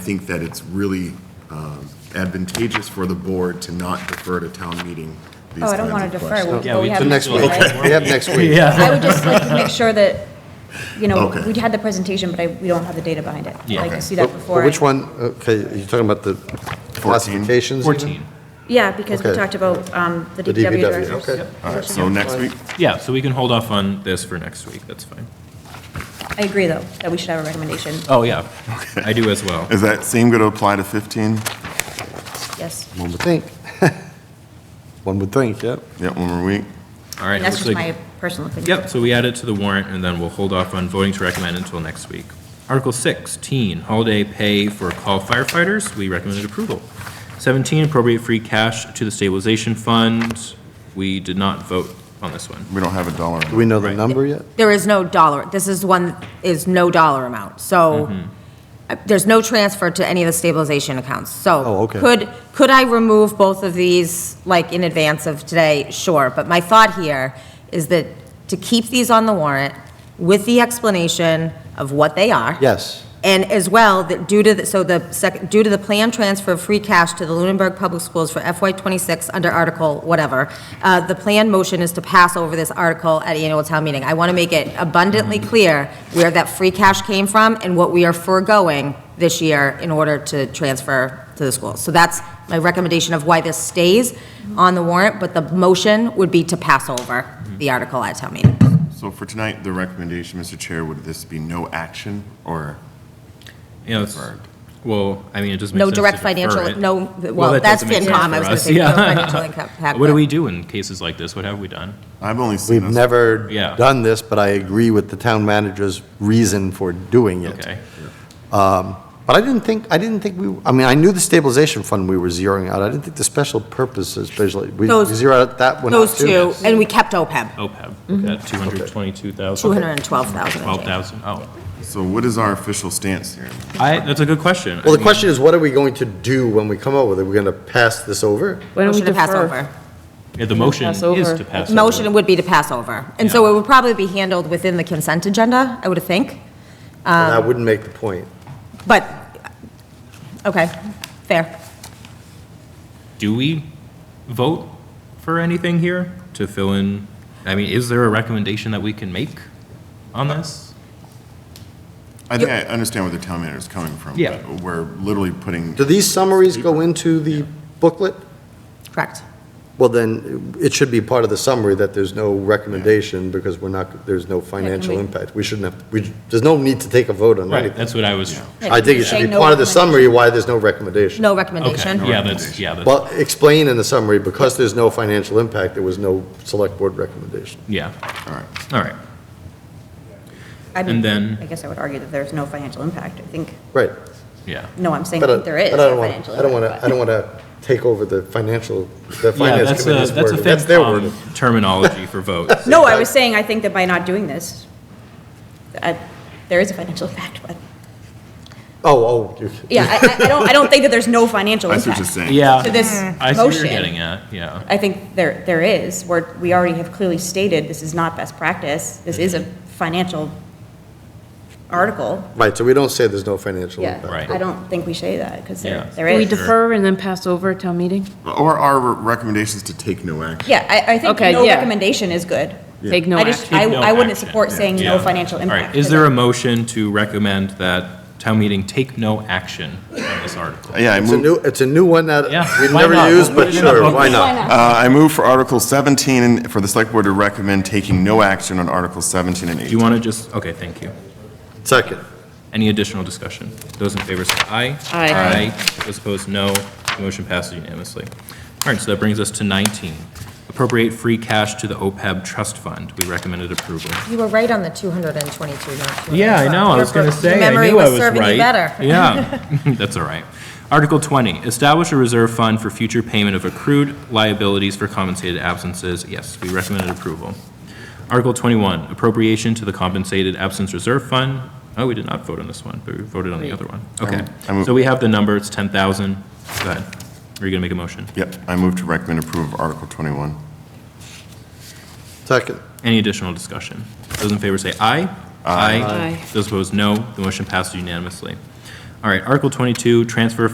I think that it's really um, advantageous for the board to not defer to town meeting these Oh, I kinds of questions. don't want to defer, we- Yeah, but we we- have. the to next do it, week. right? Okay. We have next week. Yeah. I would just like to make sure that, you know, Okay. we had the presentation, but I, we don't have the data behind it. I'd like Okay. to see But- that before. but Which I- one, okay, you're talking about the classifications? even? 14. Yeah, because we Okay. talked about um, the The DPW DPW, directors. okay. All right, so next week, Yeah, so we can hold off on this for next week, that's fine. I agree, though, that we should have a recommendation, Oh, yeah, I do as well. is that same going to apply to 15? yes. One would think. One would think, yep. Yeah, one more week? All right. And that's looks just my like- personal opinion. Yep, so we add it to the warrant, and then we'll hold off on voting to recommend until next week. Article 16, holiday pay for call firefighters, we recommended approval. 17, appropriate free cash to the stabilization fund, we did not vote on this one. We don't have a dollar. Do we know the Right. number yet? There is no dollar, this is one, is no dollar amount, so, uh, there's no transfer to any of the stabilization accounts, so. Oh, okay. Could, could I remove both of these, like, in advance of today? Sure, but my thought here is that to keep these on the warrant with the explanation of what they are. Yes. And as well, that due to, the- so the second, due to the planned transfer of free cash to the Lunenburg Public Schools for FY '26 under Article whatever, uh, the planned motion is to pass over this article at annual town meeting. I want to make it abundantly clear where that free cash came from and what we are foregoing this year in order to transfer to the schools. So that's my recommendation of why this stays on the warrant, but the motion would be to pass over the article at town meeting. So for tonight, the recommendation, Mr. Chair, would this be no action or? You know, it's, well, I mean, it just makes No sense to direct defer financial, it. no, well, that that's doesn't make sense FinCom, for I was going to us. say, no Yeah. financial impact. What do but- we do in cases like this? What have we done? I've only seen We've us. never Yeah. done this, but I agree with the town manager's reason for doing it. Um, Okay. But I didn't think, I didn't think we, I mean, I knew the stabilization fund we were zeroing out. I didn't think the special purposes, especially, we Those- zeroed out that one out Those too? two, and we kept E OPEB, OPEB, at 222,000. 212,000. I think. 12,000, oh. So what is our official stance here? I, that's a good question. I Well, the mean, question is, what are we going to do when we come up with it? We're going to pass this over? Why don't we Motion to pass defer? over. yeah, The motion pass is over. to pass. Motion over. would be to pass over. And so Yeah. it would probably be handled within the consent agenda, I would think, And that wouldn't make the point. but, okay, fair. Do we vote for anything here to fill in? I mean, is there a recommendation that we can make on this? I think I understand where the town manager is coming from. Yeah. but We're literally putting, Do these summaries go into the booklet? Correct. Well, then, it should be part of the summary that there's no recommendation because we're not, there's no financial we- impact. We shouldn't have, we, there's no need to take a vote on Right, anything. that's what I was, Yeah, I think it say should be no part of the recommendation. summary why there's no recommendation. No okay, recommendation. yeah, that's, yeah, that's, Well, explain in the summary, because there's no financial impact, there was no select board recommendation. yeah, all right. all right. I mean, And then- I guess I would argue that there's no financial impact, I think, Right. Yeah. no, I'm saying But I- that there is but I no don't want, financial impact. I don't want to, I don't want to take over the financial, the Yeah, finance that's a, committee's that's a wording. That's their FinCom wording. terminology for votes. No, I was saying, I think that by not doing this, I- there is a financial impact, but, Oh, oh. you- yeah, I- I I don't, I don't think that there's no financial I impact. see what you're saying. Yeah. To this I see what you're motion. getting at, yeah. I think there, there is, where we already have clearly stated, this is not best practice, this is a financial article. Right, so we don't say there's no financial impact. Right. I don't think we say that, because Yeah. there, there Do we is. defer and then pass over at town meeting? Or our recommendations to take no action. Yeah, I, I think Okay, no yeah. recommendation is good. Take no I just, action. I, Take no I wouldn't action. support saying Yeah. no financial All impact. right, is there a motion to recommend that town meeting take no action on this article? Yeah, I It's a move, new, it's a new one that Yeah, we've why never not? used, but We'll put it in our sure, book. why not? uh, I move for Article 17 for the select board to recommend taking no action on Article 17 and 18. Do you want to just, okay, thank you. Second. Any additional discussion? Those in favor say aye. Aye. Aye. Those opposed, no. The Motion passes unanimously. All right, so that brings us to 19. Appropriate free cash to the OPEB trust fund. We recommended approval. You were right on the 222, not 200. Yeah, I know, I was going to say, I Memory knew I was was right. serving you better. Yeah, that's all right. Article 20, establish a reserve fund for future payment of accrued liabilities for compensated absences. Yes, we recommended approval. Article 21, appropriation to the compensated absence reserve fund. Oh, we did not vote on this one, but we voted on the other one. Um, Okay, I move- so we have the number, it's 10,000. Go ahead. Are you going to make a motion? Yep, I move to recommend approval of Article 21. Second. Any additional discussion? Those in favor say aye. Aye. Those opposed, no. The motion passes unanimously. All right, Article 22, transfer